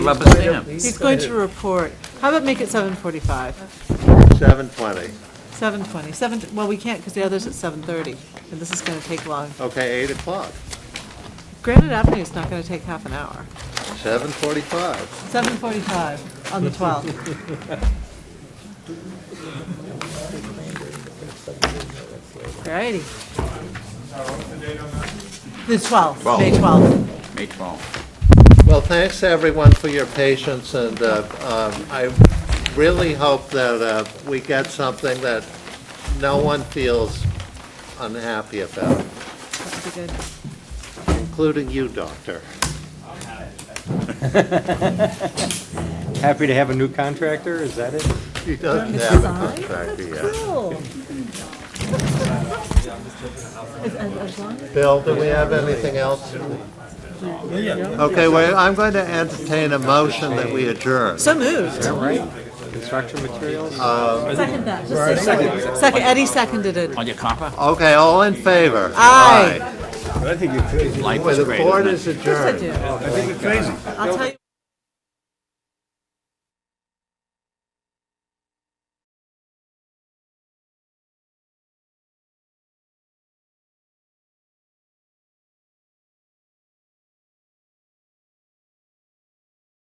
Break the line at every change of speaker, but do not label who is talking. Rubber stamp.
He's going to report. How about make it 7:45?
7:20.
7:20, 7, well, we can't because the other's at 7:30, and this is going to take long.
Okay, 8 o'clock,
Granite Avenue is not going to take half an hour.
7:45.
7:45 on the 12th. Alrighty. The 12th, May 12th.
May 12th.
Well, thanks to everyone for your patience, and uh, um, I really hope that uh, we get something that no one feels unhappy about,
That would be good.
including you, Doctor.
Happy to have a new contractor, is that it?
He doesn't have a contract yet. Bill, do we have anything else? Okay, well, I'm going to entertain a motion that we adjourn.
So moved.
Construction materials?
Second that. Second, Eddie seconded it.
On your copper?
Okay, all in favor?
Aye.
Life
Aye.
is
The
great,
board
isn't it?
is adjourned.
I do. I think it's crazy. I'll tell you.